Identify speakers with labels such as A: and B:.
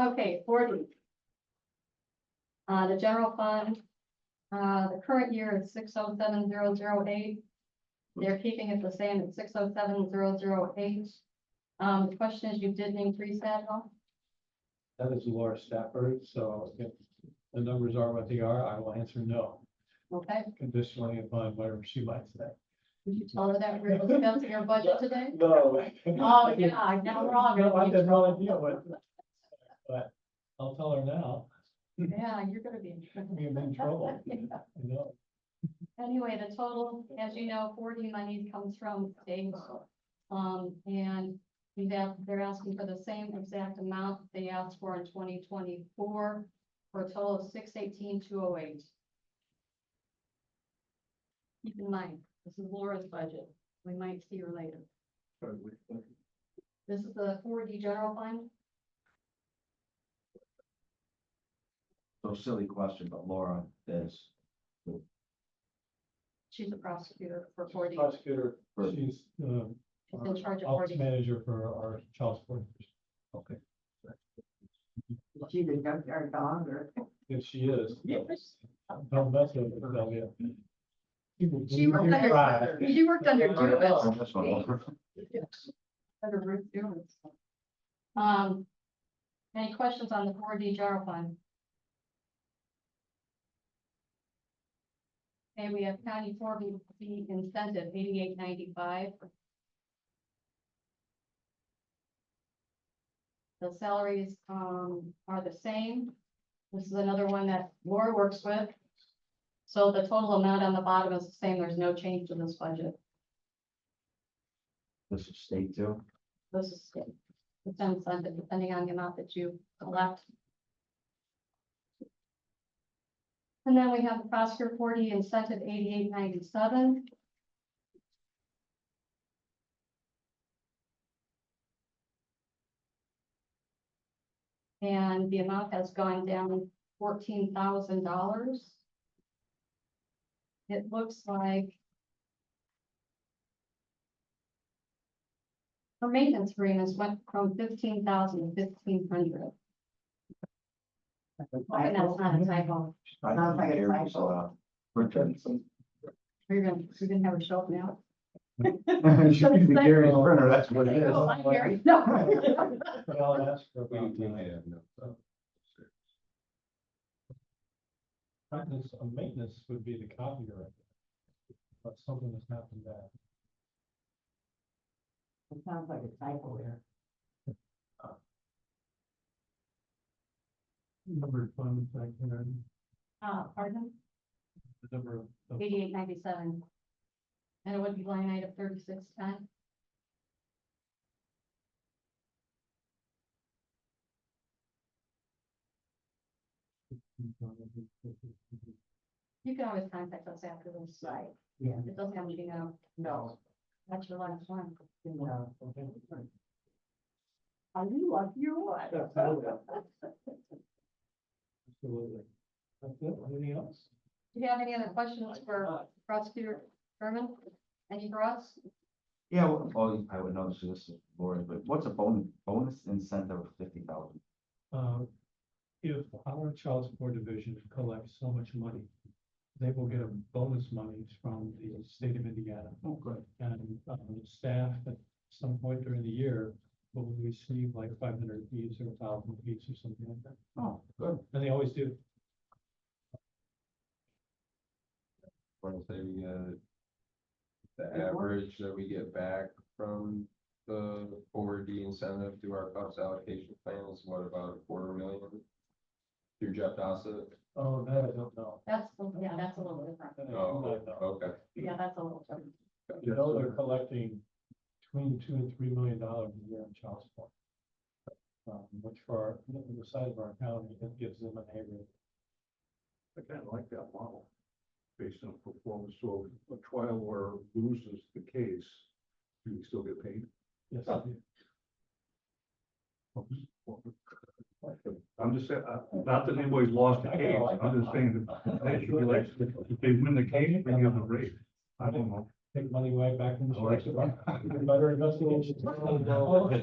A: Okay, forty. Uh, the general fund, uh, the current year is six oh seven zero zero eight. They're keeping it the same at six oh seven zero zero eight. Um, the question is, you did increase that at all?
B: That is Laura Stafford, so if the numbers are what they are, I will answer no,
A: Okay,
B: conditionally upon whatever she might say.
A: did you tell her that we were discussing your budget today?
B: No.
A: Oh, yeah, I know, wrong.
B: No, I did not idea what. But I'll tell her now,
A: Yeah, you're gonna be. in trouble.
B: we're in trouble, you know.
A: Anyway, the total, as you know, forty money comes from states. Um, and we've asked, they're asking for the same exact amount they asked for in twenty twenty-four for a total of six eighteen, two oh eight. Keep in mind, this is Laura's budget. We might see her later. This is the four D general fund.
C: So silly question, but Laura is
A: She's a prosecutor for forty.
B: Prosecutor, she's the
A: She's in charge of
B: office
A: forty.
B: manager for our child support.
C: okay.
D: She even dumped our dog or.
B: If she is. Don't mess with her, Sylvia.
A: She worked under,
B: Right.
A: she worked under two of us.
C: Oh, that's one over.
A: Better root doing stuff. Um, any questions on the four D general fund? Okay, we have county four B incentive eighty-eight ninety-five. The salaries, um, are the same. This is another one that Laura works with. So the total amount on the bottom is the same. There's no change to this budget.
C: This is state too.
A: This is good. It's on Sunday, depending on the amount that you elect. And then we have the prosecutor forty incentive eighty-eight ninety-seven. And the amount has gone down fourteen thousand dollars. It looks like Her maintenance agreements went from fifteen thousand to fifteen hundred. Hoping that's not a typo.
C: I
D: Sounds like
C: think
D: a
C: Gary's
D: typo.
C: allowed. Printer.
A: We're gonna, we're gonna have her show up now.
C: It should be Gary's printer, that's what it is.
A: Oh, hi, Gary. No.
B: But I'll ask her about that. Maintenance, uh, maintenance would be the copyright. But something has happened that.
D: It sounds like a typo error.
B: Number of funds I can,
A: Uh, pardon,
B: the number of. of-
A: eighty-eight ninety-seven. And it would be line item thirty-six uh, ten. You can always contact us after this.
D: Right, yeah,
A: It doesn't have to be now.
D: no,
A: That's your last one.
D: no. Are you lucky or what?
B: Absolutely. That's it, anything else?
A: Do you have any other questions for prosecutor Berman? Any for us?
C: Yeah, well, oh, I would know this is Laura, but what's a bonus, bonus incentive of fifty thousand?
B: Uh, if our child support division collects so much money, they will get a bonus monies from the state of Indiana.
C: Oh, good.
B: And um, staff at some point during the year will receive like five hundred fees or thousand fees or something like that.
C: Oh, good.
B: And they always do.
E: want to say we get uh, the
D: Good work.
E: average that we get back from the four D incentive to our cost allocation plan is what about a quarter million? Through Jeff Dossett?
B: Oh, that I don't know.
A: That's, yeah, that's a little different.
B: That I do
E: Oh,
B: not know.
E: okay.
A: Yeah, that's a little different.
B: You know, they're collecting between two and three million dollars a year in child support. Um, which for, our- the size of our county, it gives them a neighborhood.
F: I kind of like that model, based on performance, so if a trial lawyer loses the case, do we still get paid?
B: Yes, I do.
F: I'm just saying, uh, not that anybody's lost a case, I'm just saying that they should be like, if they win the case, bring up the rate, I don't know.
B: Take money right back from the.
F: All right.
B: source. Better investigation.